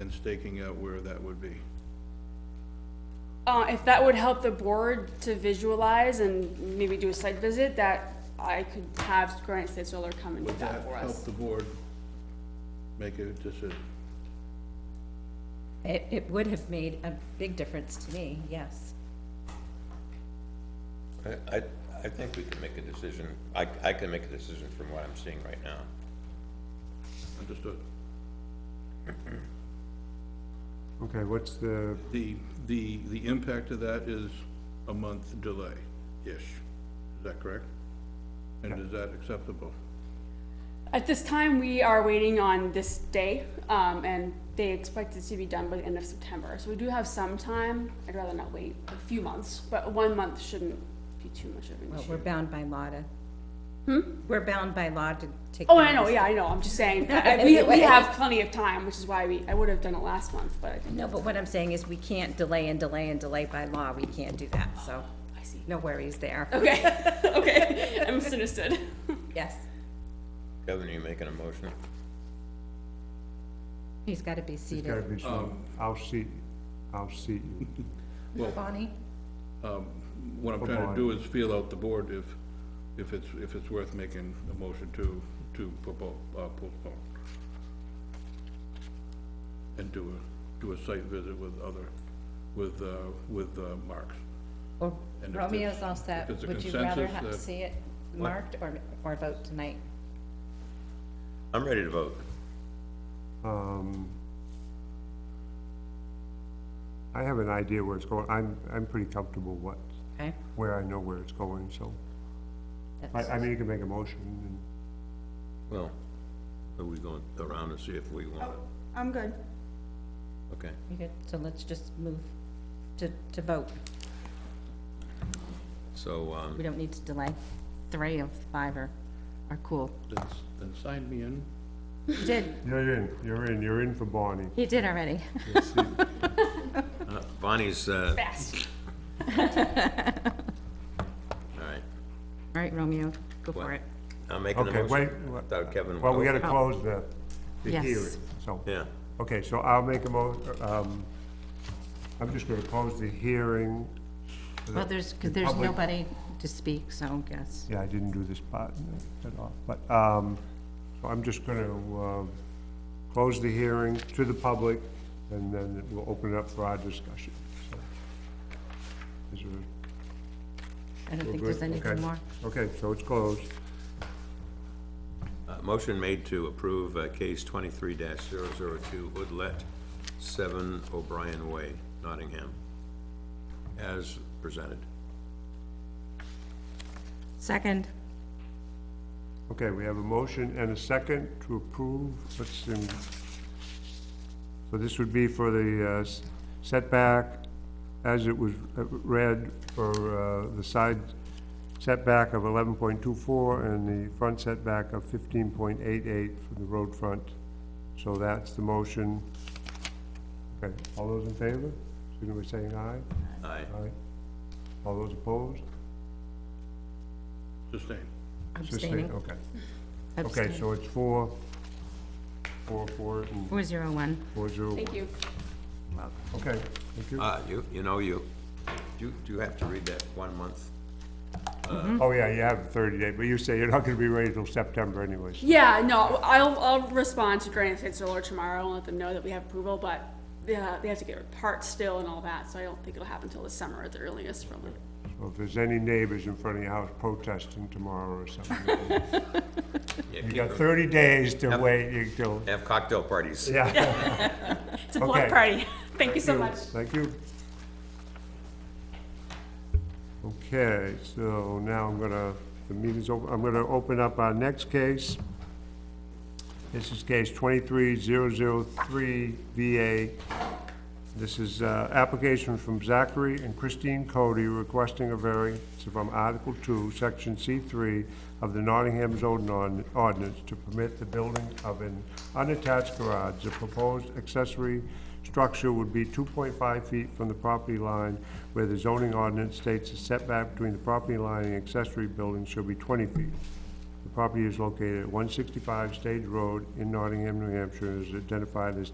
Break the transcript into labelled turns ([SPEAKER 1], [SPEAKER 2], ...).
[SPEAKER 1] and staking out where that would be.
[SPEAKER 2] Uh, if that would help the board to visualize and maybe do a site visit, that I could have Granite State Solar come and do
[SPEAKER 1] Would
[SPEAKER 2] that
[SPEAKER 1] that
[SPEAKER 2] for
[SPEAKER 1] help
[SPEAKER 2] us.
[SPEAKER 1] the board make a decision?
[SPEAKER 3] It, it would have made a big difference to me, yes.
[SPEAKER 4] I, I, I think we can make a decision, I, I can make a decision from what I'm seeing right now.
[SPEAKER 1] Understood.
[SPEAKER 5] Okay, what's the,
[SPEAKER 1] The, the, the impact of that is a month delay-ish. Is that correct? And is that acceptable?
[SPEAKER 2] At this time, we are waiting on this day, um, and they expect it to be done by the end of September. So we do have some time. I'd rather not wait a few months, but one month shouldn't be too much of an
[SPEAKER 3] Well,
[SPEAKER 2] issue.
[SPEAKER 3] we're bound by law to. We're bound by law to take.
[SPEAKER 2] Hmm? Oh, I know,
[SPEAKER 3] notice.
[SPEAKER 2] yeah, I know. I'm just saying, I- we, we
[SPEAKER 3] Anyway.
[SPEAKER 2] have plenty of time, which is why we, I would have done it last month, but I didn't.
[SPEAKER 3] No, but what I'm saying is we can't delay and delay and delay by law. We can't do that, so
[SPEAKER 2] I see.
[SPEAKER 3] no worries there.
[SPEAKER 2] Oh. Okay, okay, I misunderstood.
[SPEAKER 3] Yes,
[SPEAKER 4] Kevin, are you making a motion?
[SPEAKER 3] he's gotta be
[SPEAKER 5] it's gotta
[SPEAKER 2] Oh,
[SPEAKER 3] seated.
[SPEAKER 5] be
[SPEAKER 4] Um,
[SPEAKER 5] some, I'll seat, I'll seat you.
[SPEAKER 3] Bonnie?
[SPEAKER 1] What I'm trying to do is feel out the board if, if it's, if it's worth making a motion to, to propo- uh, postpone. And do a, do a site visit with other, with, uh, with uh, Marks.
[SPEAKER 3] Or
[SPEAKER 1] And if
[SPEAKER 3] Romeo's
[SPEAKER 1] there's-
[SPEAKER 3] all
[SPEAKER 1] if
[SPEAKER 3] set.
[SPEAKER 1] there's a
[SPEAKER 3] Would you rather
[SPEAKER 1] consensus
[SPEAKER 3] have
[SPEAKER 1] that-
[SPEAKER 3] see it marked or, or vote tonight?
[SPEAKER 4] I'm ready to vote.
[SPEAKER 5] Um, I have an idea where it's going, I'm, I'm pretty comfortable what,
[SPEAKER 3] Okay?
[SPEAKER 5] where I know where it's going, so. I,
[SPEAKER 3] That's-
[SPEAKER 5] I mean, you can make a motion, and
[SPEAKER 4] Well, are we going around and see if we want it?
[SPEAKER 2] Oh, I'm good.
[SPEAKER 4] Okay.
[SPEAKER 3] you good? So let's just move to, to vote.
[SPEAKER 4] So, um,
[SPEAKER 3] We don't need to delay. Three of five are, are cool.
[SPEAKER 1] Then, then sign me in.
[SPEAKER 3] You did,
[SPEAKER 5] you're in, you're in, you're in for Bonnie.
[SPEAKER 3] you did already.
[SPEAKER 4] uh, Bonnie's, uh,
[SPEAKER 2] Fast.
[SPEAKER 4] all
[SPEAKER 3] All
[SPEAKER 4] right,
[SPEAKER 3] right, Romeo, go
[SPEAKER 4] What?
[SPEAKER 3] for it.
[SPEAKER 4] I'm making a
[SPEAKER 5] Okay, wait,
[SPEAKER 4] motion.
[SPEAKER 5] wha-
[SPEAKER 4] Without Kevin.
[SPEAKER 5] well, we gotta
[SPEAKER 4] voting.
[SPEAKER 5] close the, the
[SPEAKER 3] Yes.
[SPEAKER 5] hearing, so.
[SPEAKER 4] Yeah,
[SPEAKER 5] Okay, so I'll make a mo, um, I'm just gonna close the hearing.
[SPEAKER 3] Well, there's, 'cause there's
[SPEAKER 5] Public-
[SPEAKER 3] nobody to speak, so I guess.
[SPEAKER 5] Yeah, I didn't do this part at all, but, um, so I'm just gonna, um, close the hearing to the public, and then we'll open it up for our discussion, so. Is there-
[SPEAKER 3] I don't
[SPEAKER 5] we're
[SPEAKER 3] think there's
[SPEAKER 5] good?
[SPEAKER 3] anything
[SPEAKER 5] Okay.
[SPEAKER 3] more.
[SPEAKER 5] Okay, so it's closed.
[SPEAKER 4] uh, motion made to approve, uh, case twenty-three 2 Hoodlet, seven O'Brien Way, Nottingham, as presented.
[SPEAKER 3] Second,
[SPEAKER 5] Okay, we have a motion and a second to approve, let's, um, so this would be for the uh, s- setback, as it was uh, read, for uh, the side setback of eleven point two four and the front setback of fifteen point eight eight for the road front. So that's the motion. Okay, all those in favor? Signal by saying aye.
[SPEAKER 4] Aye.
[SPEAKER 5] Aye. All those opposed?
[SPEAKER 1] Sustain.
[SPEAKER 3] abstaining.
[SPEAKER 5] Okay. Oh, Okay,
[SPEAKER 3] Abstain.
[SPEAKER 5] so it's four, four, four, and
[SPEAKER 3] Four zero one.
[SPEAKER 5] four, zero.
[SPEAKER 2] Thank you.
[SPEAKER 5] Okay, thank you.
[SPEAKER 4] Uh, you, you know, you, you, you have to read that one month.
[SPEAKER 5] Oh, yeah, you have thirty day, but you say you're not gonna be ready till September anyways.
[SPEAKER 2] Yeah, no, I'll, I'll respond to Granite State Solar tomorrow and let them know that we have approval, but they, uh, they have to get parts still and all that, so I don't think it'll happen till the summer at the earliest, probably.
[SPEAKER 5] So if there's any neighbors in front of your house protesting tomorrow or something,
[SPEAKER 4] Yeah,
[SPEAKER 5] you
[SPEAKER 4] keep
[SPEAKER 5] got
[SPEAKER 4] it.
[SPEAKER 5] thirty days to
[SPEAKER 4] Yep.
[SPEAKER 5] wait until,
[SPEAKER 4] Have cocktail parties.
[SPEAKER 5] yeah.
[SPEAKER 2] It's a block
[SPEAKER 5] Okay.
[SPEAKER 2] party. Thank you so much.
[SPEAKER 5] Thank you. Okay, so now I'm gonna, the meeting's over, I'm gonna open up our next case. This is case twenty-three zero zero three VA. This is, uh, application from Zachary and Christine Cody requesting a variance from Article Two, Section C three of the Nottingham zoning Ord- ordinance to permit the building of an unattached garage. The proposed accessory structure would be two point five feet from the property line, where the zoning ordinance states the setback between the property line and accessory building shall be twenty feet. The property is located at one sixty-five Stage Road in Nottingham, New Hampshire, and is identified as